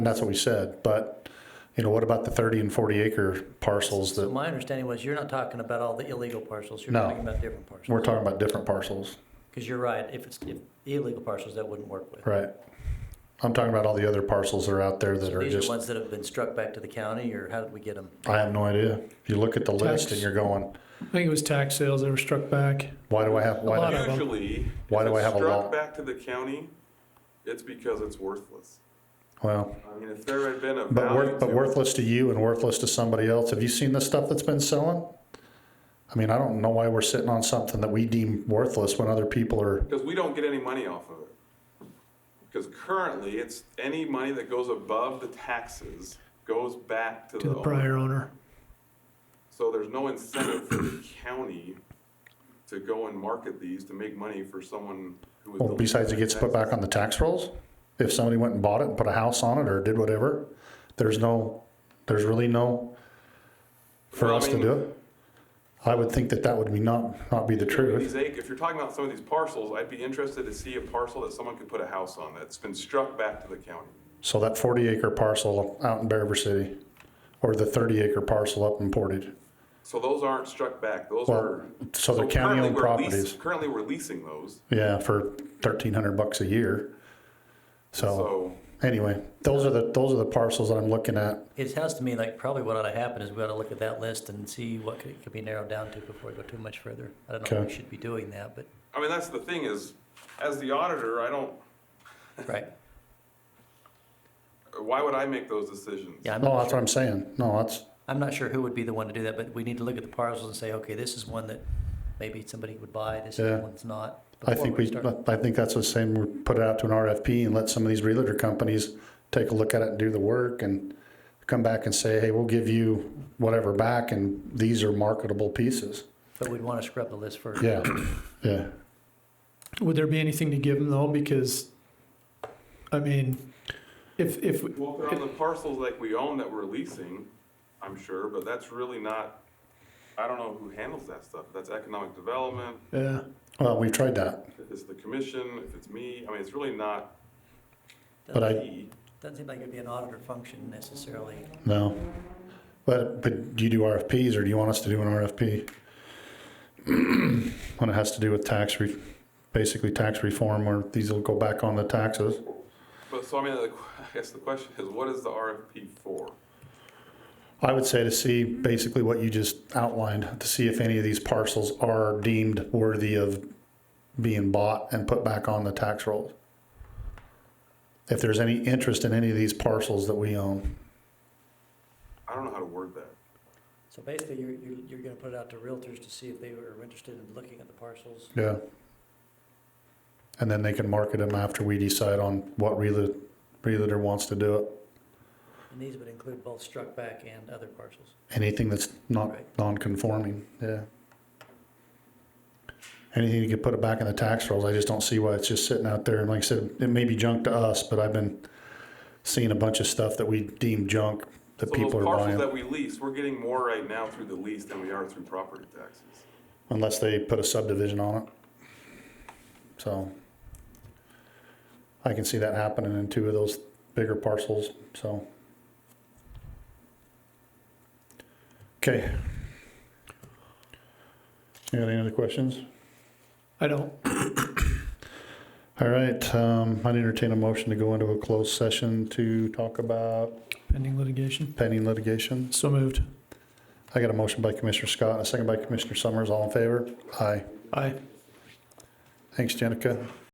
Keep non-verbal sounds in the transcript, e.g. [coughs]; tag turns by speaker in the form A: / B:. A: And that's what we said, but, you know, what about the thirty and forty acre parcels
B: So
A: that,
B: my understanding was you're not talking about all the illegal parcels, you're
A: No.
B: talking about different parcels.
A: we're talking about different parcels,
B: Because you're right, if it's if illegal parcels, that wouldn't work with.
A: right? I'm talking about all the other parcels that are out there that
B: So
A: are
B: these are
A: just,
B: ones that have been struck back to the county, or how did we get them?
A: I have no idea. If you look at the list and
C: Tax.
A: you're going,
C: I think it was tax sales that were struck back.
A: why do I have, why
C: lot
A: do
C: of- them.
D: Usually,
A: Why
D: if
A: do I
D: it's
A: have a
D: struck
A: law?
D: back to the county, it's because it's worthless.
A: Well,
D: I mean, if there had been a
A: but
D: value
A: worth,
D: to
A: but
D: it,
A: worthless to you and worthless to somebody else. Have you seen the stuff that's been selling? I mean, I don't know why we're sitting on something that we deem worthless when other people are,
D: because we don't get any money off of it. Because currently, it's any money that goes above the taxes goes back to
C: to
D: the
C: the
D: owner.
C: prior owner.
D: So there's no incentive for the county to go and market these to make money for someone who
A: well,
D: is.
A: besides it gets put back on the tax rolls. If somebody went and bought it and put a house on it or did whatever, there's no, there's really no for
D: Well, I
A: us to
D: mean-
A: do it. I would think that that would be not, not be the truth.
D: These ac- if you're talking about some of these parcels, I'd be interested to see a parcel that someone could put a house on that's been struck back to the county.
A: So that forty acre parcel out in Bear River City or the thirty acre parcel up in Portage.
D: So those aren't struck back, those
A: Well,
D: are.
A: so they're
D: currently
A: county-owned
D: we're leas-
A: properties.
D: Currently, we're leasing those,
A: Yeah, for thirteen hundred bucks a year. So
D: so,
A: anyway, those are the, those are the parcels that I'm looking at.
B: It sounds to me like probably what ought to happen is we ought to look at that list and see what could, could be narrowed down to before we go too much further. I don't know if
A: Okay.
B: we should be doing that, but,
D: I mean, that's the thing is, as the auditor, I don't,
B: right,
D: why would I make those decisions?
B: yeah, I'm
A: No,
B: not
A: Oh, that's what
B: sure,
A: I'm saying. No, that's,
B: I'm not sure who would be the one to do that, but we need to look at the parcels and say, okay, this is one that maybe somebody would buy, this
A: Yeah.
B: is one's not.
A: I
B: before
A: think we,
B: start.
A: I think that's the same, we put it out to an RFP and let some of these realtor companies take a look at it and do the work and come back and say, hey, we'll give you whatever back and these are marketable pieces.
B: But we'd want to scrub the list first.
A: Yeah, [coughs] yeah.
C: Would there be anything to give them though? Because, I mean, if, if,
D: Well, if they're on the parcels like we own that we're leasing, I'm sure, but that's really not, I don't know who handles that stuff, that's economic development,
C: yeah,
A: Well, we've tried that,
D: if it's the commission, if it's me, I mean, it's really not
A: but I,
D: me.
B: Doesn't seem like it'd be an auditor function necessarily.
A: no. But, but do you do RFPs or do you want us to do an RFP? [coughs] When it has to do with tax re, basically tax reform where these will go back on the taxes.
D: But, so I mean, the- [laughs] I guess the question is, what is the RFP for?
A: I would say to see basically what you just outlined, to see if any of these parcels are deemed worthy of being bought and put back on the tax roll. If there's any interest in any of these parcels that we own.
D: I don't know how to word that.
B: So basically, you're, you're, you're gonna put it out to realtors to see if they were interested in looking at the parcels.
A: Yeah. And then they can market them after we decide on what realtor, realtor wants to do it.
B: And these would include both struck back and other parcels.
A: Anything that's not
B: Right.
A: non-conforming, yeah. Anything you could put it back in the tax rolls, I just don't see why it's just sitting out there, and like I said, it may be junk to us, but I've been seeing a bunch of stuff that we deem junk that
D: So
A: people
D: those
A: are
D: parcels
A: buying,
D: that we lease, we're getting more right now through the lease than we are through property taxes.
A: unless they put a subdivision on it. So. I can see that happening in two of those bigger parcels, so. Okay. You got any other questions?
C: I don't,
A: All right, um, I'd entertain a motion to go into a closed session to talk about
C: pending litigation.
A: pending litigation.
C: So moved.
A: I got a motion by Commissioner Scott and a second by Commissioner Summers. All in favor? Aye.
C: Aye.
A: Thanks, Jenica.